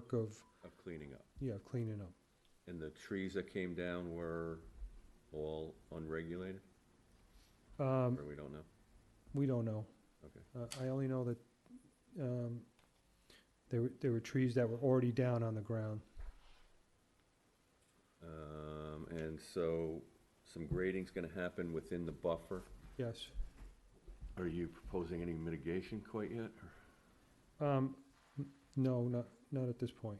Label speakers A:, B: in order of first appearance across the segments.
A: work of,
B: of cleaning up.
A: yeah, cleaning up.
B: And the trees that came down were all unregulated?
A: Um,
B: Or we don't know?
A: we don't know.
B: Okay.
A: Uh, I only know that, um, there were, there were trees that were already down on the ground.
B: Um, and so some grading's gonna happen within the buffer.
A: Yes.
B: Are you proposing any mitigation quite yet? or-
A: Um, n- no, not, not at this point.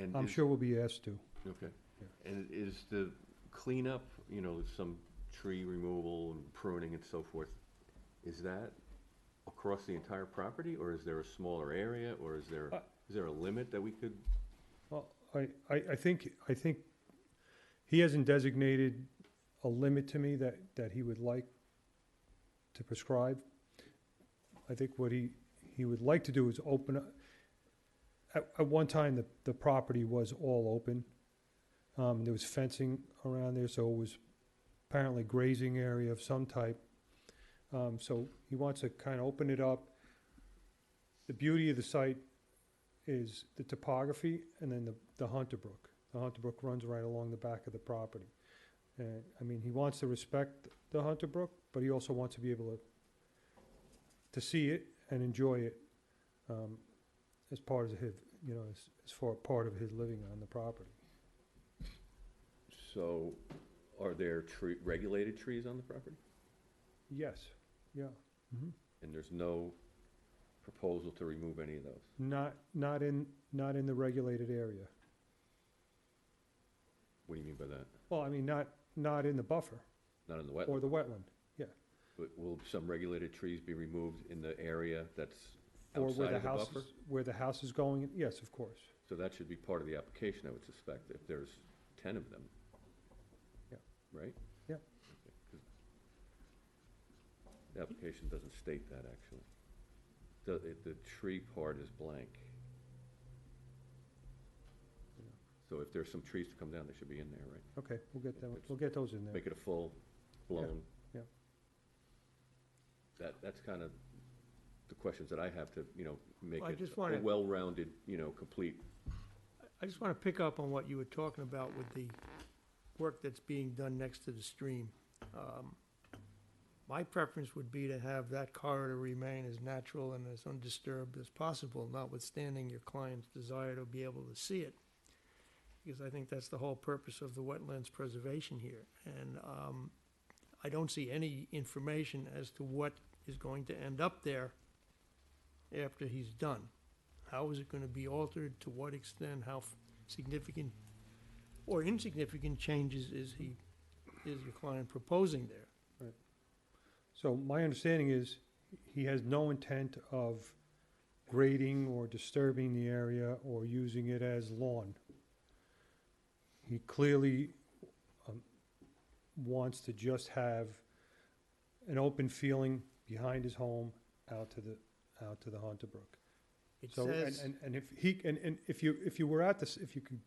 B: and
A: I'm
B: is-
A: sure we'll be asked to.
B: Okay.
A: Yeah.
B: And is the cleanup, you know, some tree removal and pruning and so forth, is that across the entire property, or is there a smaller area, or is there,
A: Uh,
B: is there a limit that we could?
A: Well, I, I, I think, I think he hasn't designated a limit to me that, that he would like to prescribe. I think what he, he would like to do is open, up- at, at one time, the, the property was all open. Um, there was fencing around there, so it was apparently grazing area of some type. Um, so he wants to kind of open it up. The beauty of the site is the topography and then the, the Hunter Brook. The Hunter Brook runs right along the back of the property. And, I mean, he wants to respect the Hunter Brook, but he also wants to be able to, to see it and enjoy it, um, as part of his, you know, as, as far part of his living on the property.
B: So, are there tree, regulated trees on the property?
A: Yes, yeah.
B: And there's no proposal to remove any of those?
A: Not, not in, not in the regulated area.
B: What do you mean by that?
A: Well, I mean, not, not in the buffer
B: Not in the
A: or
B: wetland?
A: the wetland,
B: But will some regulated trees be removed in the area that's
A: or
B: outside
A: where the
B: of the
A: house,
B: buffer?
A: is- where the house is going, yes, of course.
B: So that should be part of the application, I would suspect, if there's ten of them.
A: Yeah.
B: Right?
A: Yeah.
B: Okay, 'cause The application doesn't state that, actually. The, it- the tree part is blank. So if there's some trees to come down, they should be in there, right?
A: Okay, we'll get that,
B: Which-
A: we'll get those in there.
B: Make it a full blown.
A: yeah.
B: That, that's kind of the questions that I have to, you know, make
C: Well, I
B: it
C: just
B: a
C: wanna-
B: well-rounded, you know, complete.
C: I just want to pick up on what you were talking about with the work that's being done next to the stream. Um, My preference would be to have that corridor remain as natural and as undisturbed as possible, notwithstanding your client's desire to be able to see it. Because I think that's the whole purpose of the wetlands preservation here. And um, I don't see any information as to what is going to end up there after he's done. How is it going to be altered? To what extent? How f- significant or insignificant changes is he, is your client proposing there?
A: So my understanding is he has no intent of grading or disturbing the area or using it as lawn. He clearly um, wants to just have an open feeling behind his home out to the, out to the Hunter Brook.
C: It
A: So, and,
C: says,
A: and, and if he, and, and if you, if you were at this, if you could,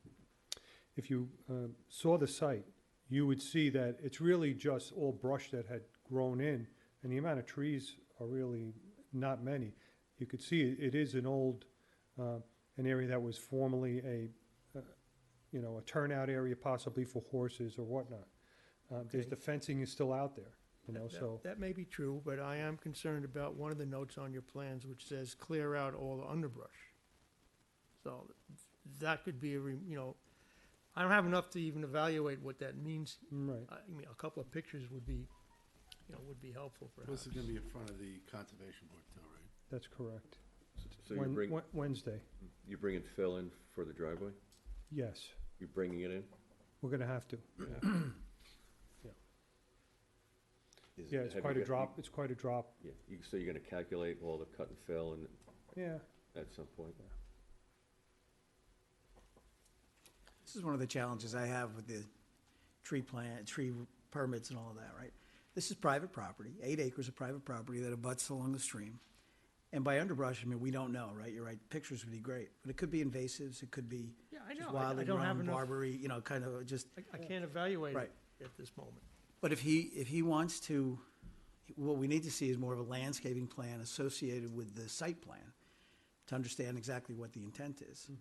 A: if you, um, saw the site, you would see that it's really just all brush that had grown in, and the amount of trees are really not many. You could see it, it is an old, uh, an area that was formerly a, uh, you know, a turnout area possibly for horses or whatnot. Uh, there's,
C: Okay.
A: the fencing is still out there, you know,
C: that-
A: so,
C: that may be true, but I am concerned about one of the notes on your plans which says, clear out all the underbrush. So that could be, a re- you know, I don't have enough to even evaluate what that means.
A: right.
C: I mean, a couple of pictures would be, you know, would be helpful
D: This
C: perhaps.
D: is gonna be in front of the conservation board too, right?
A: That's correct.
B: So you
A: Wen-
B: bring,
A: Wen- Wednesday,
B: you bringing fill in for the driveway?
A: yes,
B: You're bringing it in?
A: we're gonna have to.
B: Is-
A: Yeah, it's
B: have you
A: quite a
B: got-
A: drop, it's quite a drop.
B: Yeah, you- so you're gonna calculate all the cut and fill and,
A: Yeah,
B: at some point?
E: This is one of the challenges I have with the tree plant, tree permits and all of that, right? This is private property, eight acres of private property that abuts along the stream. And by underbrush, I mean, we don't know, right? You're right, pictures would be great, but it could be invasives, it could be
C: Yeah, I
E: just
C: know. I- I
E: wildly
C: don't have
E: grown
C: enough-
E: barberry, you know, kind of just,
C: I- I can't evaluate it
E: Right.
C: at this moment.
E: but if he, if he wants to, what we need to see is more of a landscaping plan associated with the site plan to understand exactly what the intent is.